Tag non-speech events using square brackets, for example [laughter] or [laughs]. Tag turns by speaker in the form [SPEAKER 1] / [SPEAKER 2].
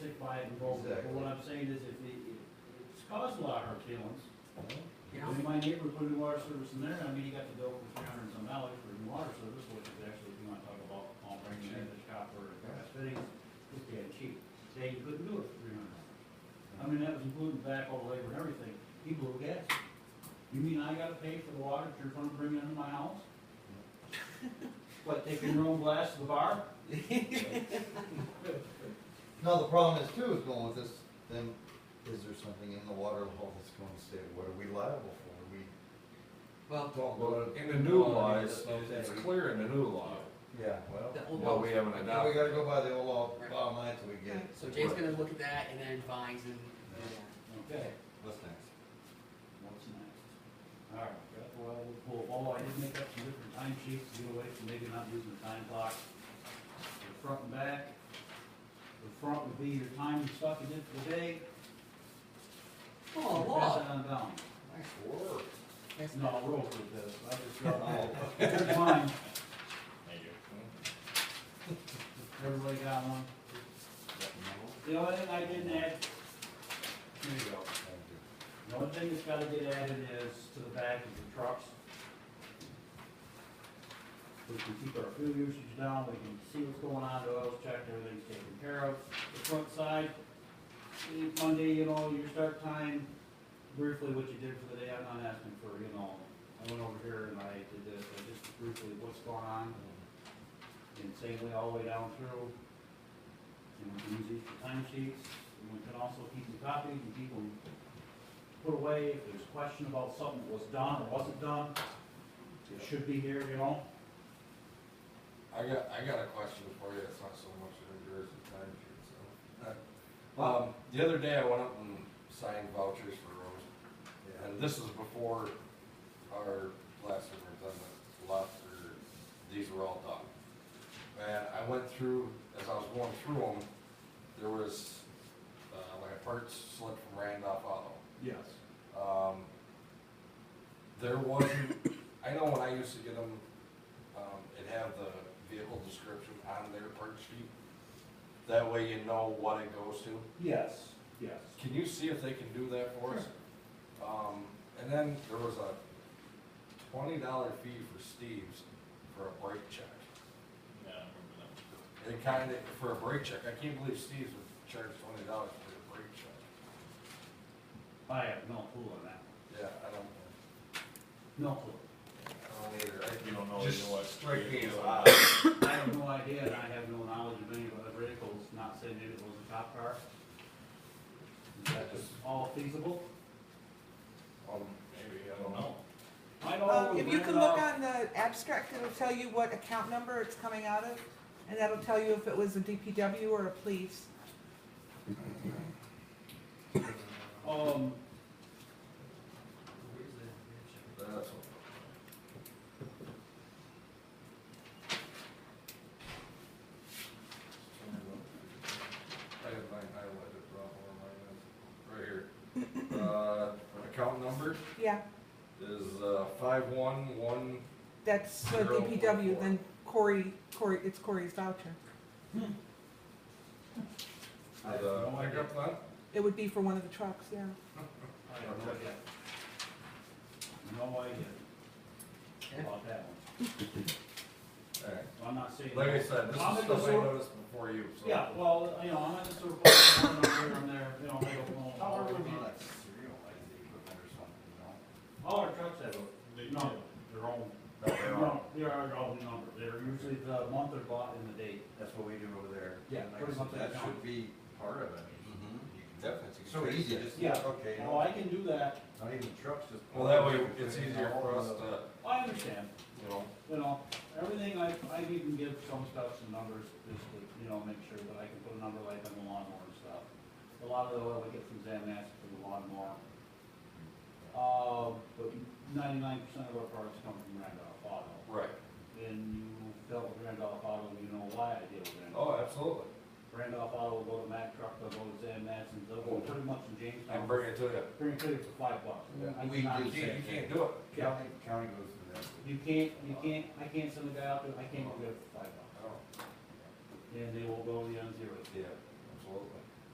[SPEAKER 1] qualified to vote, but
[SPEAKER 2] Exactly.
[SPEAKER 1] what I'm saying is if it, it's caused a lot of hurt feelings.
[SPEAKER 3] Yeah.
[SPEAKER 1] When my neighbor put in water service in there, I mean, he got the bill for three hundred and some dollars for new water service, which is actually, if you wanna talk about, all bringing in the copper and brass fittings, it's damn cheap. Today, you couldn't do it for three hundred dollars. I mean, that was including back all the labor and everything, he blew gas. You mean I gotta pay for the water that you're gonna bring into my house? What, taking your own glass to the bar?
[SPEAKER 2] Now, the problem is too, is going with this, then, is there something in the water law that's going to say, what are we liable for? We
[SPEAKER 3] Well,
[SPEAKER 2] don't
[SPEAKER 4] Well,
[SPEAKER 2] go
[SPEAKER 4] in the new law,
[SPEAKER 2] laws,
[SPEAKER 4] it's, it's clear in the new law,
[SPEAKER 2] to, yeah, well,
[SPEAKER 3] the old
[SPEAKER 4] what
[SPEAKER 3] law.
[SPEAKER 4] we haven't
[SPEAKER 2] now we
[SPEAKER 4] adopted.
[SPEAKER 2] gotta go by the old law, bottom line, till we get. it.
[SPEAKER 3] So Jay's gonna look at that and then finds and,
[SPEAKER 1] Okay.
[SPEAKER 2] What's next?
[SPEAKER 1] What's next? All right, got the oil pool. Oh, I did make up some different time sheets to get away from maybe not using the time clock. The front and back. The front would be your time and stuff you did for the day.
[SPEAKER 3] oh,
[SPEAKER 1] You Pass
[SPEAKER 3] law.
[SPEAKER 1] it on down.
[SPEAKER 2] Nice work.
[SPEAKER 3] That's
[SPEAKER 1] No,
[SPEAKER 3] not-
[SPEAKER 1] rules with this. I just got all. Here's mine. Everybody got one? The only thing I didn't add, here you go.
[SPEAKER 2] Thank you.
[SPEAKER 1] The only thing that's gotta get added is to the back of the trucks. We can keep our fuel usage down, we can see what's going on, the oil's checked, everything's taken care of. The front side, eh, Monday, you know, your start time, briefly what you did for the day, I'm not asking for, you know, I went over here and I did this, I just briefly what's going on. And same way all the way down through. And we can use these for time sheets, and we can also keep them copied and keep them put away, if there's a question about something that was done or wasn't done, it should be here, you know?
[SPEAKER 5] I got, I got a question for you, it's not so much of yours, it's time sheet, so. [laughs] Um, the other day I went up and signed vouchers for roads,
[SPEAKER 2] Yeah.
[SPEAKER 5] and this is before our last one was done, the lots, or, these were all done. And I went through, as I was going through them, there was, uh, like a parts slip from Randolph Auto.
[SPEAKER 1] Yes.
[SPEAKER 5] Um, there wasn't, I know when I used to get them, um, it'd have the vehicle description on their part sheet. That way you know what it goes to.
[SPEAKER 1] Yes, yes.
[SPEAKER 5] Can you see if they can do that for us? Um, and then there was a twenty dollar fee for Steve's for a brake check. They kinda, for a brake check, I can't believe Steve's would charge twenty dollars for a brake check.
[SPEAKER 1] I have no clue on that,
[SPEAKER 5] Yeah, I don't,
[SPEAKER 1] no clue.
[SPEAKER 5] I don't either. I-
[SPEAKER 4] You don't know,
[SPEAKER 5] Just
[SPEAKER 4] you know what?
[SPEAKER 5] strike me as odd.
[SPEAKER 1] I have no idea, and I have no knowledge of any of the vehicles, not saying maybe it was a cop car. Is that just all feasible?
[SPEAKER 4] [coughs]
[SPEAKER 5] Um,
[SPEAKER 4] Maybe, I don't know.
[SPEAKER 1] I
[SPEAKER 6] Um,
[SPEAKER 5] Oh,
[SPEAKER 1] know.
[SPEAKER 6] if you can look on the abstract, it'll tell you what account number it's coming out of, and that'll tell you if it was a DPW or a police.
[SPEAKER 1] Um,
[SPEAKER 5] That's what. I have mine highlighted, Rob, where mine is. right here. Uh, account number
[SPEAKER 6] Yeah,
[SPEAKER 5] is, uh, five one one,
[SPEAKER 6] that's the
[SPEAKER 5] Zero one
[SPEAKER 6] DPW,
[SPEAKER 5] four.
[SPEAKER 6] then Corey, Corey, it's Corey's voucher.
[SPEAKER 1] I have
[SPEAKER 5] uh, the
[SPEAKER 1] no idea.
[SPEAKER 5] pickup line.
[SPEAKER 6] It would be for one of the trucks, yeah.
[SPEAKER 1] I have no idea. No idea about that one.
[SPEAKER 5] Alright,
[SPEAKER 1] So I'm not saying.
[SPEAKER 5] like I said, this is
[SPEAKER 1] I'm at the
[SPEAKER 5] stuff I
[SPEAKER 1] sewer-
[SPEAKER 5] noticed before you, so.
[SPEAKER 1] Yeah, well, you know, I'm not just sort of [coughs] putting it over here and there, you know, I don't know. All our- All our trucks have a number, their own,
[SPEAKER 2] No, they're on.
[SPEAKER 1] no, they are their own number, they're usually the month they're bought and the date.
[SPEAKER 2] That's what we do over there.
[SPEAKER 1] Yeah,
[SPEAKER 2] Like I
[SPEAKER 1] pretty
[SPEAKER 2] said,
[SPEAKER 1] much
[SPEAKER 2] That
[SPEAKER 1] that
[SPEAKER 2] should
[SPEAKER 1] count.
[SPEAKER 2] be part of it.
[SPEAKER 5] Mm-hmm.
[SPEAKER 2] You can Definitely.
[SPEAKER 5] So easy.
[SPEAKER 2] Just,
[SPEAKER 1] Yeah.
[SPEAKER 2] okay, you
[SPEAKER 1] Well,
[SPEAKER 2] know,
[SPEAKER 1] Oh, I can do that,
[SPEAKER 2] not even trucks, just.
[SPEAKER 5] Well, that way it's easier for us to,
[SPEAKER 1] I understand,
[SPEAKER 5] uh, you know,
[SPEAKER 1] you know, everything I, I even give some stuff some numbers, just to, you know, make sure that I can put a number like on the lawnmower and stuff. A lot of the oil I get from Zan Mass for the lawnmower. Uh, but ninety-nine percent of our parts come from Randolph Auto.
[SPEAKER 5] right,
[SPEAKER 1] And you dealt with Randolph Auto, you know why I deal with Randolph.
[SPEAKER 5] oh, absolutely,
[SPEAKER 1] Randolph Auto will go to Mack Truck, they'll go to Zan Matson, they'll go pretty much in
[SPEAKER 5] I
[SPEAKER 1] Jamestown.
[SPEAKER 5] can bring it to you.
[SPEAKER 1] Bring it to you for five bucks.
[SPEAKER 2] Yeah.
[SPEAKER 1] I
[SPEAKER 2] We
[SPEAKER 1] cannot
[SPEAKER 2] do
[SPEAKER 5] You
[SPEAKER 1] do that.
[SPEAKER 5] can't, you can't do it.
[SPEAKER 1] Yeah.
[SPEAKER 2] County, county goes through that.
[SPEAKER 1] You can't, you can't, I can't send a guy out there, I can't go there for five bucks.
[SPEAKER 5] Oh,
[SPEAKER 1] And they will go to the on zero.
[SPEAKER 5] yeah, absolutely.